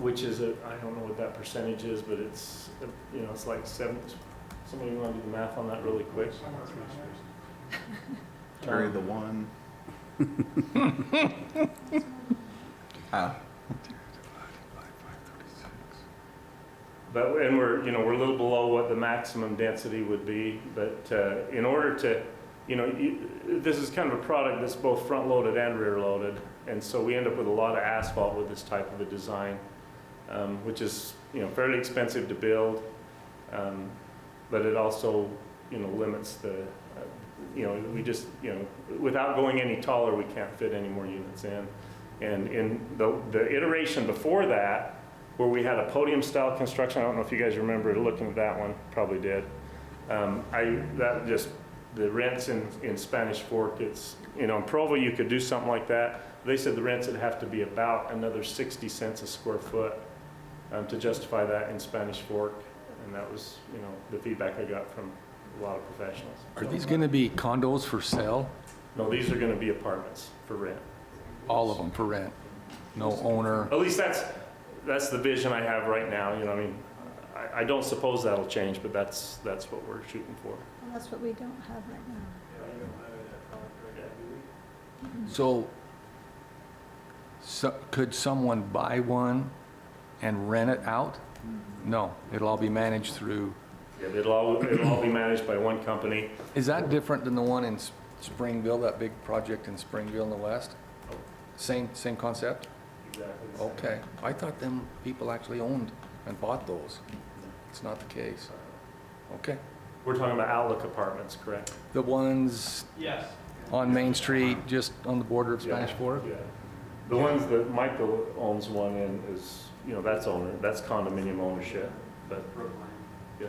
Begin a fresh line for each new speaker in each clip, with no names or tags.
which is a, I don't know what that percentage is, but it's, uh, you know, it's like seven, somebody wanna do the math on that really quick?
Carry
Um,
the one. Ah,
But, and we're, you know, we're a little below what the maximum density would be, but uh, in order to, you know, you- this is kind of a product that's both front-loaded and rear-loaded, and so we end up with a lot of asphalt with this type of a design, um, which is, you know, fairly expensive to build, um, but it also, you know, limits the, uh, you know, we just, you know, without going any taller, we can't fit any more units in. And in the the iteration before that, where we had a podium-style construction. I don't know if you guys remember looking at that one, probably did. Um, I, that just, the rents in, in Spanish Fork, it's, you know, in Provo, you could do something like that. They said the rents would have to be about another 60 cents a square foot um, to justify that in Spanish Fork. And that was, you know, the feedback I got from a lot of professionals.
Are these going to be condos for sale?
No, these are gonna be apartments for rent.
All of them for rent? No owner?
At least that's, that's the vision I have right now, you know, I mean, I, I don't suppose that'll change, but that's, that's what we're shooting for.
Well, That's what we don't have right now.
So, so, could someone buy one and rent it out? No, it'll all be managed through,
Yeah, it'll all, it'll all be managed by one company.
is that different than the one in S- Springville, that big project in Springville in the west? Same, same concept?
Exactly.
Okay, I thought them people actually owned and bought those. It's not the case. Okay.
We're talking about Outlook Apartments, correct?
The ones
Yes.
on Main Street, just on the border of
Yeah.
Spanish Fork?
Yeah. The ones that Michael owns one in is, you know, that's owner, that's condominium ownership, but, yeah.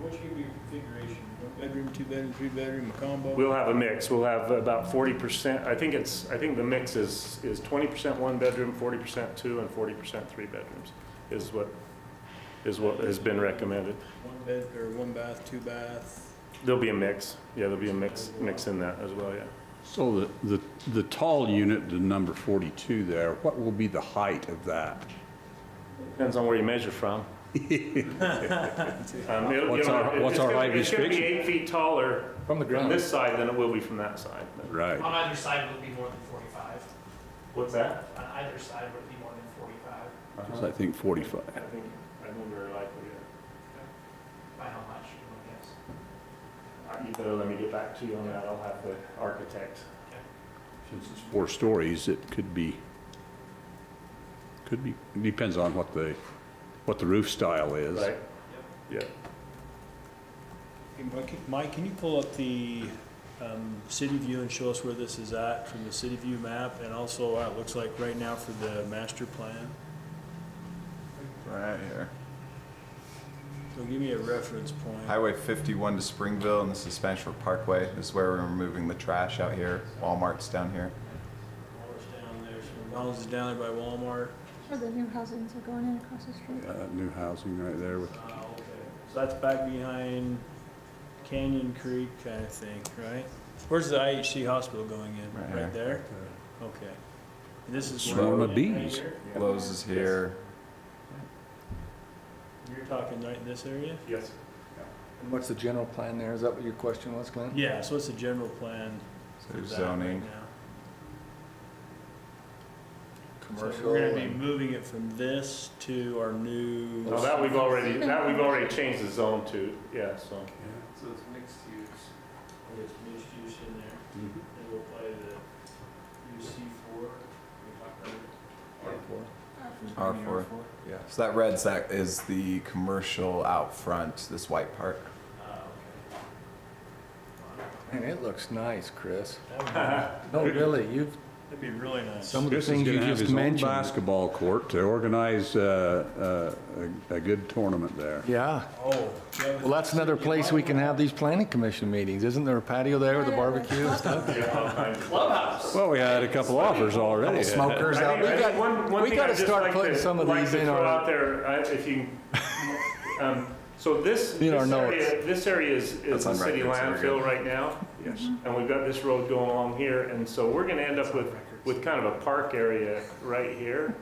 What's your configuration? One bedroom, two bedroom, three bedroom, a combo?
We'll have a mix, we'll have about forty percent, I think it's, I think the mix is, is twenty percent one bedroom, forty percent two, and forty percent three bedrooms, is what, is what has been recommended.
One bed, or one bath, two bath?
There'll be a mix, yeah, there'll be a mix, mix in that as well, yeah.
So the, the, the tall unit, the number 42 there, what will be the height of that?
Depends on where you measure from. Um, it'll-
What's
you know,
our-
it-
what's
it's
our
gonna-
height
It's going
restriction?
to be eight feet taller
From the
from
ground.
this side than it will be from that side. but-
Right.
On either side would it be more than 45.
What's that?
On either side would it be more than 45.
So I think 45.
I think, I think we're likely,
By how much, you would guess?
uh, you better let me get back to you on that, I'll have the architect.
Since it's four stories, it could be, could be, depends on what the, what the roof style is.
Right? Yeah.
Hey, Mike- Mike, can you pull up the um, city view and show us where this is at from the city view map and also what it looks like right now for the master plan?
right here.
So give me a reference point.
Highway 51 to Springville, and this is Spanish Fork Parkway. This is where we're removing the trash out here. Walmart's down here.
Walmart's down there, so Walmart's is down there by Walmart.
Where the new housings are going in across the street.
Uh, New housing right there with,
Ah, okay. So that's back behind Canyon Creek kind of thing, right? Where's the IHC hospital going in?
Right
Right there?
uh,
Okay. And this is. where-
Swarm of bees.
Right here?
Lowe's is here.
You're talking right in this area?
Yes.
And What's the general plan there? Is that what your question was, Clint?
Yeah, so what's the general plan for
So
that
zoning.
right now? So
Commercial Oh.
we're gonna be
and
moving it from this to our new.
Now that we've already, that we've already changed the zone to, yeah, so.
So it's mixed use. It's mixed use in there. And we'll apply the UC four.
R4. Yeah. So that red sack is the commercial out front, this white part.
Man, it looks nice, Chris. No, really, you've,
Ah, That'd be really nice.
some of the
Chris is
things you
gonna have
just
his own
mentioned.
basketball court to organize, uh, uh, a, a good tournament there.
Yeah,
Oh.
well, that's another place we can have these planning commission meetings. Isn't there a patio there with a barbecue and stuff?
Clubhouse!
Well, we had a couple offers already.
Smokers
I
out.
think-
We
I think one-
got,
one
we
thing
got to
I'd just
start
like
putting
to-
some of
like
these
to
in
throw out
our,
there, I- if you, um, so this,
In our
this area,
notes.
this area is, is
That's
the
on
city
record, so
landfill
we're good.
right now. Mm-hmm.
Yes.
and we've got this road going along here, and so we're gonna end up with, with kind of a park area right here.